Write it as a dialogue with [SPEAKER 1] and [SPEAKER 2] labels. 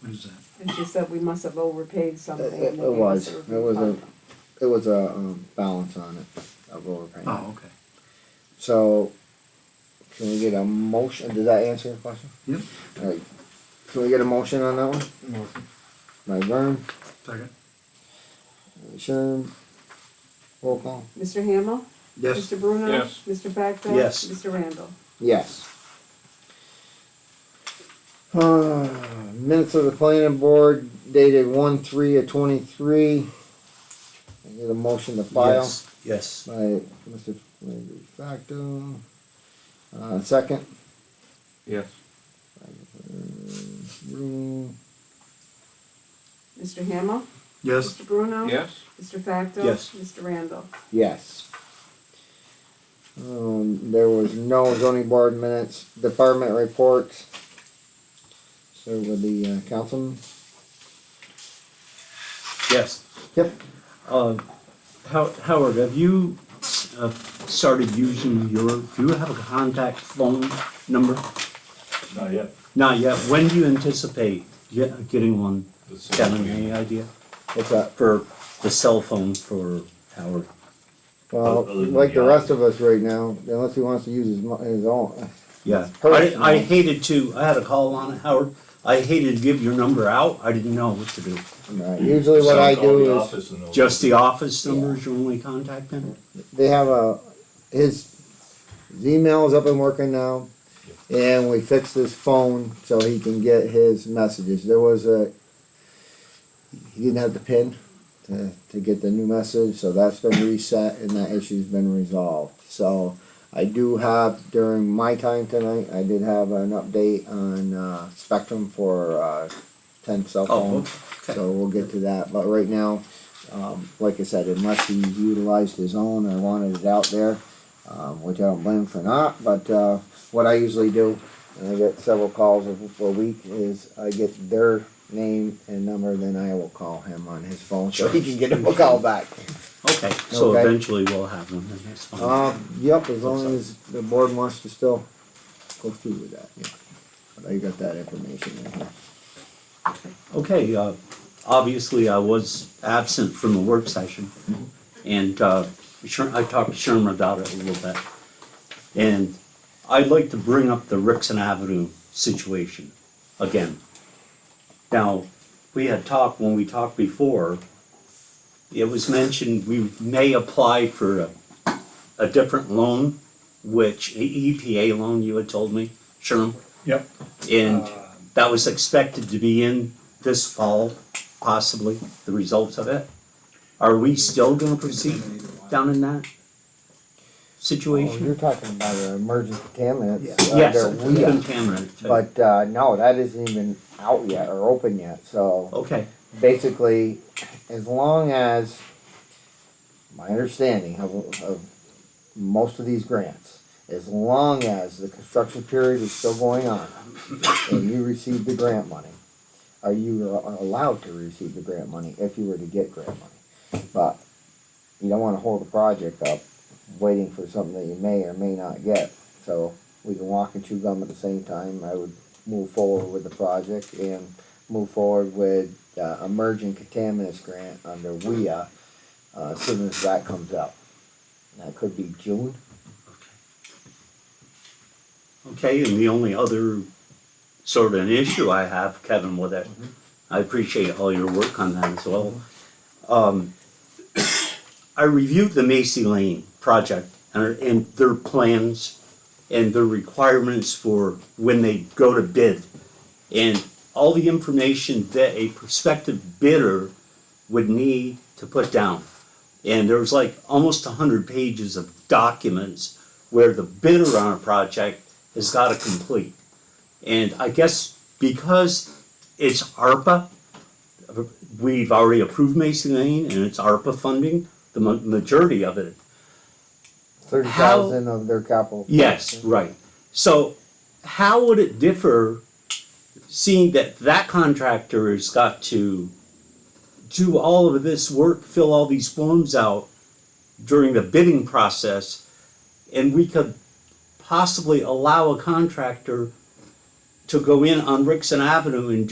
[SPEAKER 1] What is that?
[SPEAKER 2] And she said we must have overpaid something.
[SPEAKER 3] It- it
[SPEAKER 2] and they gave
[SPEAKER 3] was.
[SPEAKER 2] us a
[SPEAKER 3] It
[SPEAKER 2] refund.
[SPEAKER 3] was a- It was a um, balance on it of overpayment.
[SPEAKER 1] Oh, okay.
[SPEAKER 3] So, can we get a motion? Did that answer your question?
[SPEAKER 1] Yep.
[SPEAKER 3] Alright, can we get a motion on that one?
[SPEAKER 1] Motion.
[SPEAKER 3] By Vern,
[SPEAKER 1] Second?
[SPEAKER 3] Sherm, roll call.
[SPEAKER 2] Mr. Hamel? Mr. Bruno?
[SPEAKER 4] Yes.
[SPEAKER 2] Mr. Facto?
[SPEAKER 4] Yes.
[SPEAKER 2] Mr. Randall?
[SPEAKER 3] Yes. Uh, minutes of the planning board dated one three of twenty-three. I get a motion to file
[SPEAKER 4] Yes, Yes.
[SPEAKER 3] by Mr. Facto. Uh, second.
[SPEAKER 4] Yes.
[SPEAKER 3] Room.
[SPEAKER 2] Mr. Hamel?
[SPEAKER 1] Yes.
[SPEAKER 2] Mr. Bruno?
[SPEAKER 4] Yes.
[SPEAKER 2] Mr. Facto?
[SPEAKER 4] Yes.
[SPEAKER 2] Mr. Randall?
[SPEAKER 3] Yes. Um, there was no zoning board minutes, department reports. So with the uh, councilman,
[SPEAKER 4] Yes.
[SPEAKER 3] Yep.
[SPEAKER 4] Um, How- Howard, have you uh, started using your, do you have a contact phone number?
[SPEAKER 5] Not yet.
[SPEAKER 4] Not yet. When do you anticipate get- getting one?
[SPEAKER 5] This is-
[SPEAKER 4] Got any idea?
[SPEAKER 3] what's that?
[SPEAKER 4] For the cell phone for Howard?
[SPEAKER 3] Well,
[SPEAKER 5] Other than
[SPEAKER 3] like the
[SPEAKER 5] the
[SPEAKER 3] rest of us right now, unless he wants to use his, mo- his own.
[SPEAKER 4] Yeah, I,
[SPEAKER 3] Personal.
[SPEAKER 4] I hated to, I had a call on it, Howard. I hated to give your number out. I didn't know what to do.
[SPEAKER 3] Right, uh, Usually what
[SPEAKER 5] So
[SPEAKER 3] I
[SPEAKER 5] call the
[SPEAKER 3] do is,
[SPEAKER 5] office and they'll-
[SPEAKER 4] Just the office number is your only contact number?
[SPEAKER 3] they have a, his, his email's up and working now. And we fixed his phone so he can get his messages. There was a, he didn't have the pin to, to get the new message, so that's been reset and that issue's been resolved. So I do have, during my time tonight, I did have an update on, uh, Spectrum for, uh, ten cell
[SPEAKER 4] Oh,
[SPEAKER 3] phone.
[SPEAKER 4] okay.
[SPEAKER 3] So we'll get to that, but right now, um, like I said, unless he utilized his own or wanted it out there, um, which I don't blame him for not, but, uh, what I usually do, and I get several calls a, a week, is I get their name and number, then I will call him on his phone, so he can get him a call back.
[SPEAKER 4] Okay, so
[SPEAKER 3] Okay.
[SPEAKER 4] eventually we'll have one, and that's fine.
[SPEAKER 3] Um, yep, as long as the board wants to still go through with that, yeah. But I got that information in here.
[SPEAKER 4] Okay, uh, obviously I was absent from the work session. And, uh, Sher- I talked to Sherman about it a little bit. And I'd like to bring up the Rixon Avenue situation again. Now, we had talked, when we talked before, it was mentioned we may apply for a, a different loan, which E, a EPA loan, you had told me, Sherman.
[SPEAKER 6] Yep.
[SPEAKER 4] And that was expected to be in this fall, possibly, the results of it. Are we still gonna proceed down in
[SPEAKER 3] Oh,
[SPEAKER 4] that situation?
[SPEAKER 3] you're talking about an emergency contaminants. uh, they're
[SPEAKER 4] Yes,
[SPEAKER 3] weed.
[SPEAKER 4] contaminant.
[SPEAKER 3] But, uh, no, that isn't even out yet or open yet, so
[SPEAKER 4] Okay,
[SPEAKER 3] basically, as long as, my understanding of, of most of these grants, as long as the construction period is still going on and you receive the grant money, are you a- allowed to receive the grant money if you were to get grant money? But you don't wanna hold the project up waiting for something that you may or may not get. So we can walk and chew gum at the same time. I would move forward with the project and move forward with uh, emerging contaminants grant under WIA uh, as soon as that comes out. That could be June.
[SPEAKER 4] okay, and the only other sort of an issue I have, Kevin, with it, I appreciate all your work on that as well. Um, I reviewed the Macy Lane project and, and their plans and their requirements for when they go to bid. And all the information that a prospective bidder would need to put down. And there was like almost hundred pages of documents where the bidder on a project has gotta complete. And I guess because it's ARPA, we've already approved Mason Lane and it's ARPA funding, the ma- majority of it
[SPEAKER 3] Thirty thousand of their capital.
[SPEAKER 4] Yes, right. So how would it differ, seeing that that contractor has got to do all of this work, fill all these forms out during the bidding process, and we could possibly allow a contractor to go in on Rixon Avenue and do